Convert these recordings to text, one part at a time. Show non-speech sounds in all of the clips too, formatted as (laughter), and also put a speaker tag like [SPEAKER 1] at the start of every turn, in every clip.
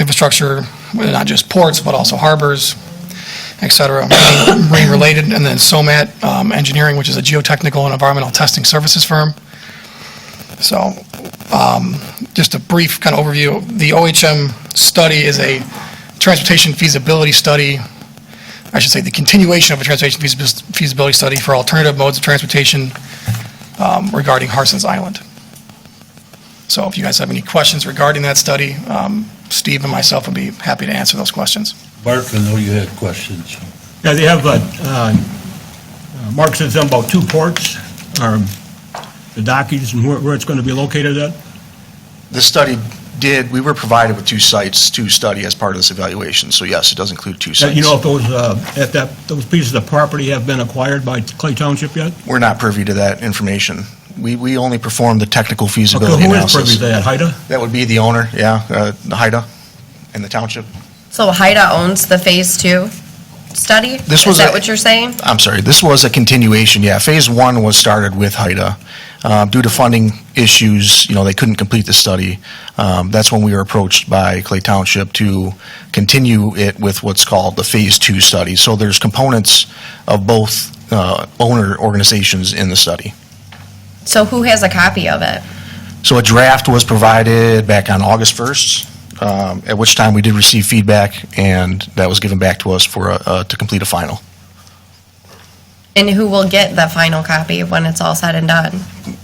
[SPEAKER 1] infrastructure, not just ports, but also harbors, et cetera, (coughs) marine-related, and then SOMAT um, Engineering, which is a geotechnical and environmental testing services firm. So um, just a brief kind of overview, the OHM study is a transportation feasibility study, I should say, the continuation of a transportation feasibil- feasibility study for alternative modes of transportation um, regarding Harson's Island. So if you guys have any questions regarding that study, um, Steve and myself would be happy to answer those questions.
[SPEAKER 2] Bart, I know you had questions.
[SPEAKER 3] Yeah, they have, uh, uh, Mark said something about two ports, or the dockies and where where it's going to be located at.
[SPEAKER 4] The study did, we were provided with two sites to study as part of this evaluation, so yes, it does include two
[SPEAKER 3] That-
[SPEAKER 4] sites.
[SPEAKER 3] You know if those, uh, if that, those pieces of property have been acquired by Clay Township yet?
[SPEAKER 4] We're not privy to that information. We, we only performed the technical
[SPEAKER 3] Okay,
[SPEAKER 4] feasibility
[SPEAKER 3] Who is privy to
[SPEAKER 4] analysis.
[SPEAKER 3] that, Haida?
[SPEAKER 4] That would be the owner, yeah, uh, Haida and the township.
[SPEAKER 5] So Haida owns the Phase Two study?
[SPEAKER 4] This was
[SPEAKER 5] Is that
[SPEAKER 4] a-
[SPEAKER 5] what you're saying?
[SPEAKER 4] I'm sorry, this was a continuation, yeah. Phase one was started with HIDA. Uh, Due to funding issues, you know, they couldn't complete the study. Um, That's when we were approached by Clay Township to continue it with what's called the phase two study. So there's components of both uh, owner organizations in the study.
[SPEAKER 5] So who has a copy of it?
[SPEAKER 4] So a draft was provided back on August 1st, um, at which time we did receive feedback, and that was given back to us for, a- uh, to complete a final.
[SPEAKER 5] And who will get the final copy when it's all said and done?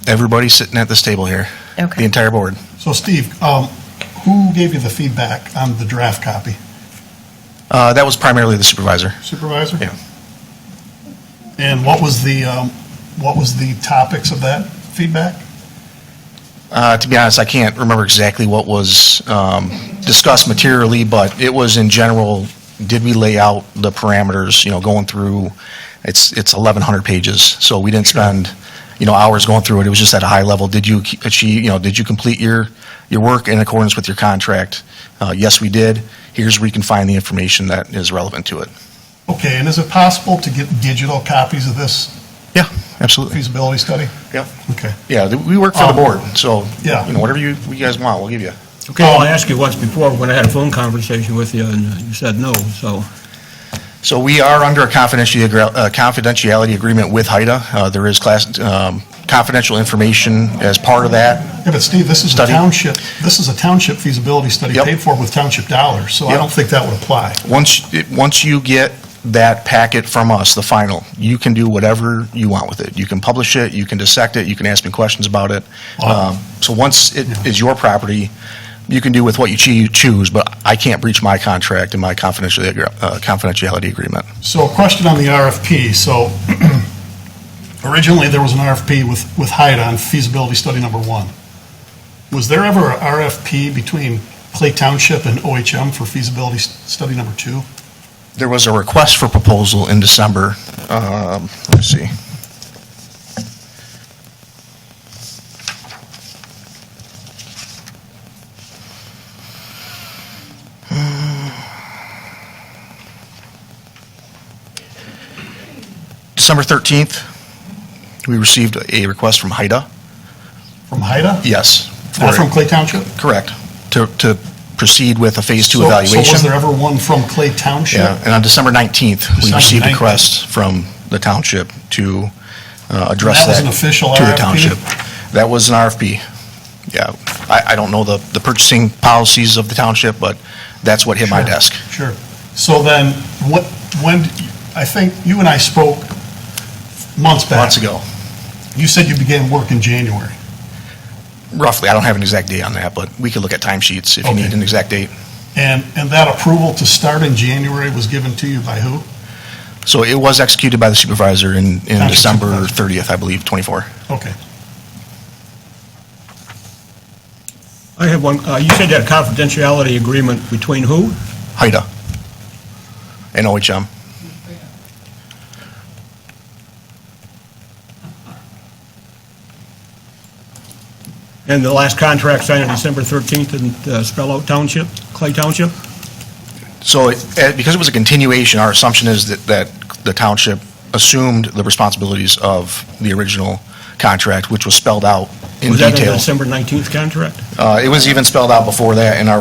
[SPEAKER 4] Everybody sitting at this table here, the
[SPEAKER 5] Okay.
[SPEAKER 4] entire board.
[SPEAKER 6] So Steve, um, who gave you the feedback on the draft copy?
[SPEAKER 4] Uh, That was primarily the supervisor.
[SPEAKER 6] Supervisor?
[SPEAKER 4] Yeah.
[SPEAKER 6] And what was the, um, what was the topics of that feedback?
[SPEAKER 4] Uh, To be honest, I can't remember exactly what was um, discussed materially, but it was in general, did we lay out the parameters, you know, going through, it's, it's 1,100 pages, so we didn't spend, you know, hours going through it, it was just at a high level, did you ke- achieve, you know, did you complete your, your work in accordance with your contract? Uh, Yes, we did, here's where you can find the information that is relevant to it.
[SPEAKER 6] Okay, and is it possible to get digital copies of this
[SPEAKER 4] Yeah, absolutely.
[SPEAKER 6] feasibility study?
[SPEAKER 4] Yep.
[SPEAKER 6] Okay.
[SPEAKER 4] Yeah, th- we work for the
[SPEAKER 6] Um,
[SPEAKER 4] board, so,
[SPEAKER 6] yeah.
[SPEAKER 4] you know, whatever you, you guys want, we'll give you.
[SPEAKER 3] Okay, well, I asked you once before when I had a phone conversation with you, and you said no, so.
[SPEAKER 4] So we are under a confidentiality agre- uh, confidentiality agreement with HIDA. Uh, There is class, um, confidential information as part of that.
[SPEAKER 6] Yeah, but Steve, this is a
[SPEAKER 4] Study.
[SPEAKER 6] township, this is a township feasibility study
[SPEAKER 4] Yep.
[SPEAKER 6] paid for with township dollars, so I
[SPEAKER 4] Yep.
[SPEAKER 6] don't think that would apply.
[SPEAKER 4] Once, it- once you get that packet from us, the final, you can do whatever you want with it. You can publish it, you can dissect it, you can ask me questions about it.
[SPEAKER 6] Wow.
[SPEAKER 4] Um, So once it is your property, you can do with what you choo- choose, but I can't breach my contract and my confidentiality agre- uh, confidentiality agreement.
[SPEAKER 6] So a question on the RFP. So (clears throat) originally, there was an RFP with, with Hyde on feasibility study number one. Was there ever a RFP between Clay Township and OHM for feasibility s- study number two?
[SPEAKER 4] There was a request for proposal in December. Um, Let's see. December 13th, we received a request from HIDA.
[SPEAKER 6] From Haida?
[SPEAKER 4] Yes.
[SPEAKER 6] Not
[SPEAKER 4] for-
[SPEAKER 6] from Clay Township?
[SPEAKER 4] Correct. To to proceed with a Phase 2
[SPEAKER 6] So-
[SPEAKER 4] evaluation.
[SPEAKER 6] So was there ever one from Clay Township?
[SPEAKER 4] Yeah, and on December 19th, we
[SPEAKER 6] December
[SPEAKER 4] received a
[SPEAKER 6] 19th.
[SPEAKER 4] request from the township to uh, address
[SPEAKER 6] That was
[SPEAKER 4] that.
[SPEAKER 6] an official
[SPEAKER 4] To the
[SPEAKER 6] RFP?
[SPEAKER 4] township. That was an RFP. Yeah, I, I don't know the, the purchasing policies of the township, but that's what hit my
[SPEAKER 6] Sure.
[SPEAKER 4] desk.
[SPEAKER 6] Sure. So then, what, when, I think you and I spoke months back.
[SPEAKER 4] Months ago,
[SPEAKER 6] You said you began work in January.
[SPEAKER 4] roughly. I don't have an exact date on that, but we could look at timesheets if you need
[SPEAKER 6] Okay.
[SPEAKER 4] an exact date.
[SPEAKER 6] And, and that approval to start in January was given to you by who?
[SPEAKER 4] So it was executed by the supervisor in, in
[SPEAKER 6] Township
[SPEAKER 4] December
[SPEAKER 6] supervisor.
[SPEAKER 4] 30th, I believe, 24.
[SPEAKER 6] Okay.
[SPEAKER 3] I have one, uh, you said you had a confidentiality agreement between who?
[SPEAKER 4] HIDA and OHM.
[SPEAKER 3] And the last contract signed on December 13th didn't uh, spell out Township, Clay Township?
[SPEAKER 4] So, it- eh, because it was a continuation, our assumption is that, that the township assumed the responsibilities of the original contract, which was spelled out in
[SPEAKER 3] Was that in the
[SPEAKER 4] detail.
[SPEAKER 3] December 19th contract?
[SPEAKER 4] Uh, It was even spelled out before that in our